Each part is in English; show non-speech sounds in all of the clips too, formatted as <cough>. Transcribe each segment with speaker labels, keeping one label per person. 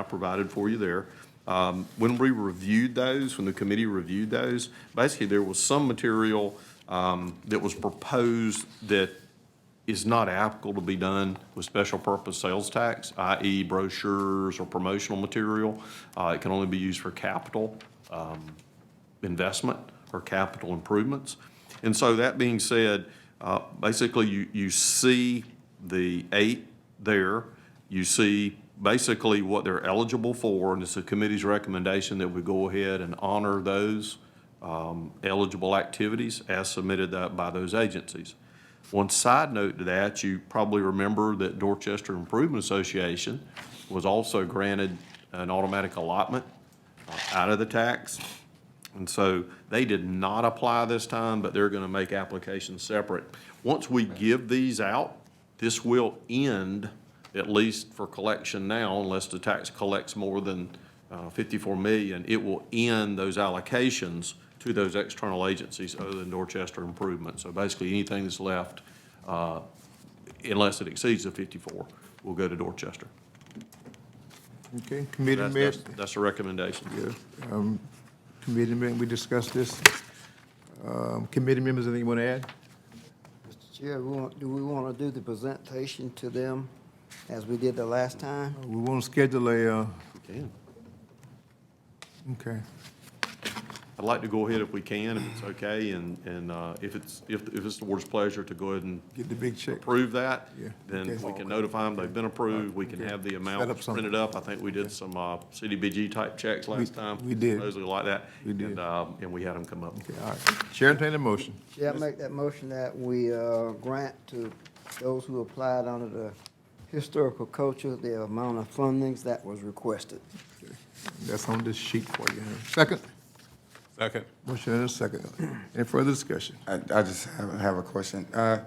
Speaker 1: I provided for you there. Um, When we reviewed those, when the committee reviewed those, basically, there was some material um, that was proposed that is not applicable to be done with special purpose sales tax, i.e. brochures or promotional material. Uh, It can only be used for capital investment or capital improvements. And so that being said, uh, basically, you, you see the eight there. You see basically what they're eligible for, and it's the committee's recommendation that we go ahead and honor those um, eligible activities as submitted tha- by those agencies. One side note to that, you probably remember that Dorchester Improvement Association was also granted an automatic allotment uh, out of the tax. And so they did not apply this time, but they're going to make applications separate. Once we give these out, this will end, at least for collection now, unless the tax collects more than uh, 54 million, it will end those allocations to those external agencies other than Dorchester Improvement. So basically, anything that's left, uh, unless it exceeds the 54, will go to Dorchester.
Speaker 2: Okay, committee
Speaker 1: That's,
Speaker 2: meeting,
Speaker 1: that's that's the recommendation.
Speaker 2: committee meeting, we discussed this. Um, Committee members, anything you want to add?
Speaker 3: Mr. Chair, we want, do we want to do the presentation to them as we did the last time?
Speaker 2: We want to schedule a, uh, okay,
Speaker 1: I'd like to go ahead if we can, if it's okay, and, and uh, if it's, if, if it's the board's pleasure to go ahead and
Speaker 2: get the big check.
Speaker 1: approve that,
Speaker 2: Yeah,
Speaker 1: then
Speaker 2: okay.
Speaker 1: we can notify them they've been approved, we can have the
Speaker 2: Set up
Speaker 1: amounts
Speaker 2: something.
Speaker 1: printed up. I think we did some uh, CDBG-type checks last time.
Speaker 2: we did.
Speaker 1: Supposedly like that.
Speaker 2: We did.
Speaker 1: And, um, and we had them come up.
Speaker 2: Okay, all right. Chair, entertain a motion.
Speaker 3: Chair, I make that motion that we uh, grant to those who applied under the historical culture the amount of fundings that was requested.
Speaker 2: That's on this sheet for you. Second,
Speaker 4: Second.
Speaker 2: motion and a second. Any further discussion?
Speaker 5: I, I just have, have a question. Uh,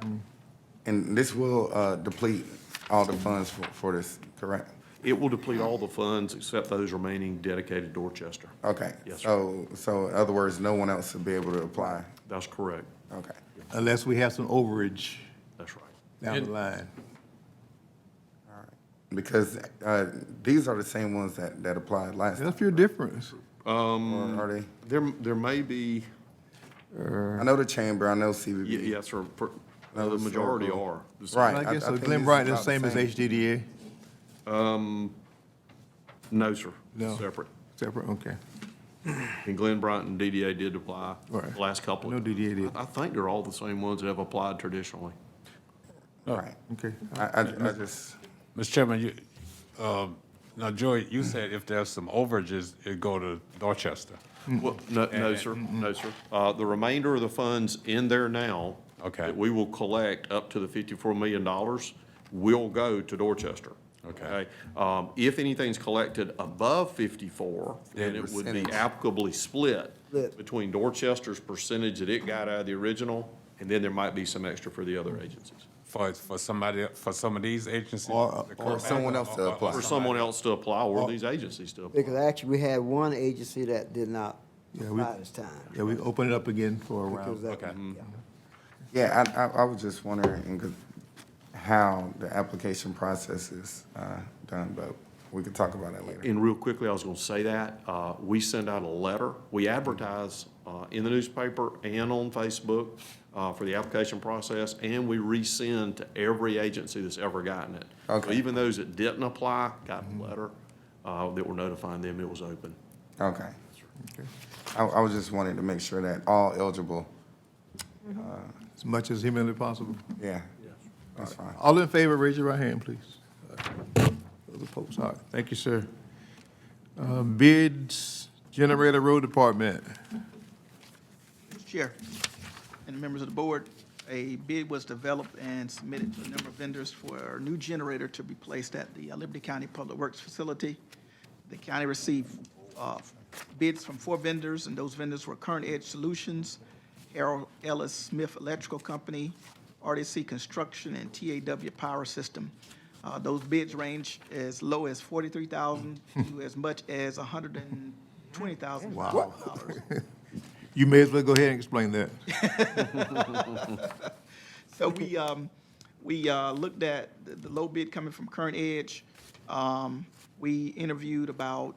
Speaker 5: and this will, uh, deplete all the funds for, for this, correct?
Speaker 1: It will deplete all the funds except those remaining dedicated to Dorchester.
Speaker 5: Okay.
Speaker 1: Yes, sir.
Speaker 5: So, so in other words, no one else will be able to apply?
Speaker 1: That's correct.
Speaker 5: Okay.
Speaker 2: Unless we have some overage
Speaker 1: That's right.
Speaker 2: down the line.
Speaker 5: Because, uh, these are the same ones that, that applied last,
Speaker 2: There's a few differences.
Speaker 1: Mm.
Speaker 5: time, are they?
Speaker 1: There, there may be,
Speaker 5: I know the chamber, I know CBB.
Speaker 1: y- yes, sir, per-
Speaker 5: No,
Speaker 1: the
Speaker 5: so-
Speaker 1: majority are.
Speaker 5: Right.
Speaker 2: I
Speaker 5: I- I
Speaker 2: guess so.
Speaker 5: think this
Speaker 2: Glenn
Speaker 5: is
Speaker 2: Bryant is
Speaker 5: about
Speaker 2: the same as HDDA?
Speaker 1: No, sir.
Speaker 2: No.
Speaker 1: Separate.
Speaker 2: Separate, okay.
Speaker 1: And Glenn Bryant and DDA did apply
Speaker 2: Right.
Speaker 1: the last couple.
Speaker 2: No
Speaker 1: of
Speaker 2: DDA did.
Speaker 1: I I think they're all the same ones that have applied traditionally.
Speaker 5: Right.
Speaker 2: Okay.
Speaker 5: I, I, I just,
Speaker 4: Mr. Chairman, you, um, now, Joey, you said if there's some overages, it go to Dorchester.
Speaker 1: Well, no, no, sir, no, sir. Uh, the remainder of the funds in there now.
Speaker 4: Okay.
Speaker 1: That we will collect up to the fifty-four million dollars will go to Dorchester.
Speaker 4: Okay.
Speaker 1: Um, if anything's collected above fifty-four, then
Speaker 4: Then
Speaker 1: it would be
Speaker 5: percentage.
Speaker 1: applicably split
Speaker 3: Split.
Speaker 1: between Dorchester's percentage that it got out of the original, and then there might be some extra for the other agencies.
Speaker 4: For, for somebody, for some of these agencies.
Speaker 2: Or-
Speaker 4: to
Speaker 5: or
Speaker 4: come back,
Speaker 5: someone else to
Speaker 4: or- or- or
Speaker 5: apply.
Speaker 1: For
Speaker 5: Or
Speaker 1: someone else to apply or these agencies to apply.
Speaker 3: Because actually, we had one agency that did not
Speaker 2: Yeah, we-
Speaker 3: apply this time.
Speaker 2: Yeah, we open it up again for a
Speaker 3: Because
Speaker 2: round.
Speaker 3: that-
Speaker 4: Okay.
Speaker 3: yeah.
Speaker 5: yeah, I, I, I was just wondering 'cause how the application process is, uh, done, but we could talk about that later.
Speaker 1: And real quickly, I was going to say that, uh, we send out a letter. We advertise uh, in the newspaper and on Facebook uh, for the application process, and we resend to every agency that's ever gotten it. So
Speaker 5: Okay.
Speaker 1: Even those that didn't apply got a letter uh, that were notifying them it was open.
Speaker 5: Okay. I, I was just wanting to make sure that all eligible,
Speaker 2: As much as humanly possible.
Speaker 5: yeah, that's fine.
Speaker 2: All in favor, raise your right hand, please. Those opposed, all right, thank you, sir. Uh, Bids, Generator Road Department.
Speaker 6: Mr. Chair and members of the board, a bid was developed and submitted to a number of vendors for a new generator to be placed at the uh, Liberty County Public Works Facility. The county received uh, bids from four vendors, and those vendors were Current Edge Solutions, Harold Ellis Smith Electrical Company, RDC Construction, and TAW Power System. Uh, Those bids range as low as forty-three thousand to as much as hundred and twenty thousand dollars.
Speaker 2: You may as well go ahead and explain that.
Speaker 6: <laughs> So we, um, we, uh, looked at the, the low bid coming from Current Edge. Um, We interviewed about